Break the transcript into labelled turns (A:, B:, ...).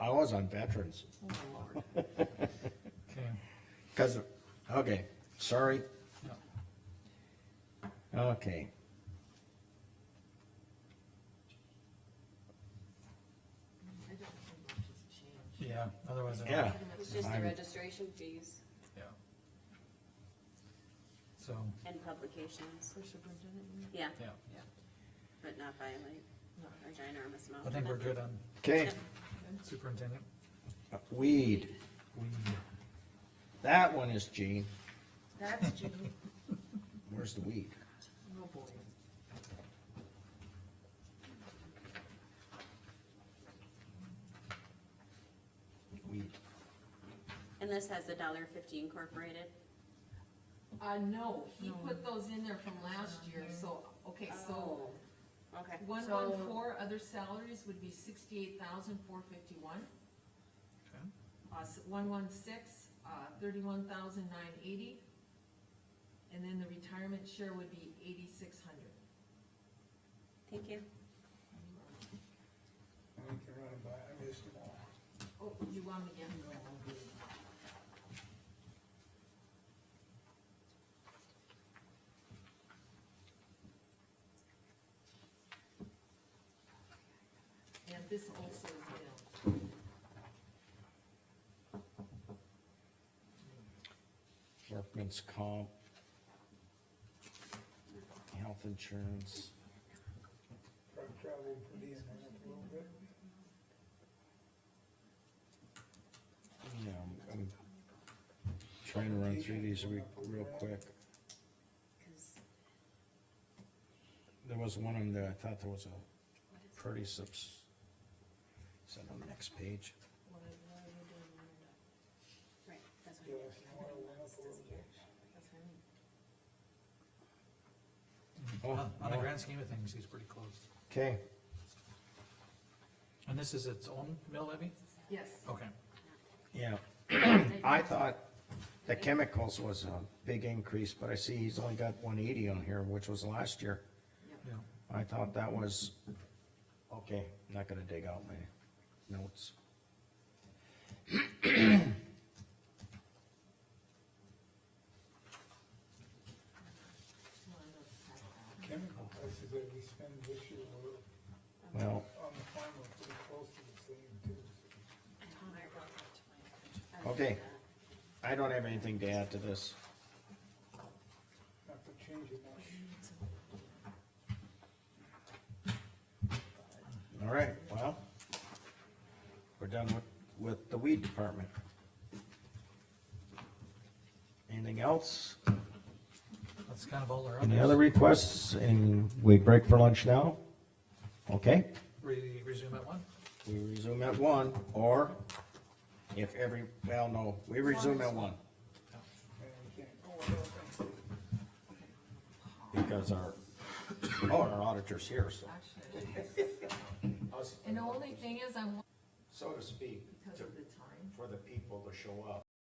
A: was on veterans,
B: Okay,
A: cause, okay, sorry.
B: No.
A: Okay.
C: I don't think much has changed.
B: yeah, otherwise. I don't-
A: Yeah.
D: It's just the
A: I'm-
D: registration fees
B: Yeah. So,
D: and publications,
C: For superintendent, you mean?
D: yeah,
B: yeah,
D: but not by like
C: No.
D: a ginormous amount.
B: I think we're good on
A: Okay,
B: superintendent.
A: weed,
B: We,
A: that one is Gene,
C: That's Jean,
A: where's the weed?
C: oh boy.
A: Weed,
D: And this has the dollar fifty incorporated,
C: Uh, no, he put those in there from last year, so, okay, so
D: so, okay,
C: one one four, other salaries would be sixty-eight thousand four fifty-one.
B: okay,
C: Uh, one one six, uh, thirty-one thousand nine eighty. And then the retirement share would be eighty-six hundred.
D: thank you.
E: I think you're running by, I missed them all.
C: Oh, you want me to get? And this also is billed.
A: workman's comp. Health insurance,
E: Truck travel per diem went up a little bit.
A: you know, I'm trying to run through these re- real quick.
D: 'Cause
A: There was one on there, I thought there was a pretty subs. Is that on the next page?
C: What are- what are you doing when you're done?
D: Right, that's what.
E: Gas and oil went up a little bit.
C: That's what I mean.
A: Oh,
B: on on the
A: no.
B: grand scheme of things, he's pretty close.
A: Okay,
B: And this is its own mill levy?
C: Yes.
B: Okay,
A: yeah, I thought the chemicals was a big increase, but I see he's only got one eighty on here, which was last year.
B: yeah,
A: I thought that was, okay, not gonna dig out my notes.
E: Chemical prices that we spend this year were
A: Well,
E: on the farm were pretty close to the same too.
A: Okay. I don't have anything to add to this.
E: Not to change it much.
A: All right, well, we're done with, with the weed department. Anything else?
B: that's kind of all our
A: Any other
B: others.
A: requests? And we break for lunch now? Okay,
B: Re- resume at one?
A: we resume at one, or if every, well, no, we resume at one.
E: And we can't go without them.
A: Because our, oh, our auditor's here, so.
C: Actually,
A: us-
C: and the only thing is, I'm,
A: So to speak,
C: because
A: to,
C: of the time.
A: for the people to show up.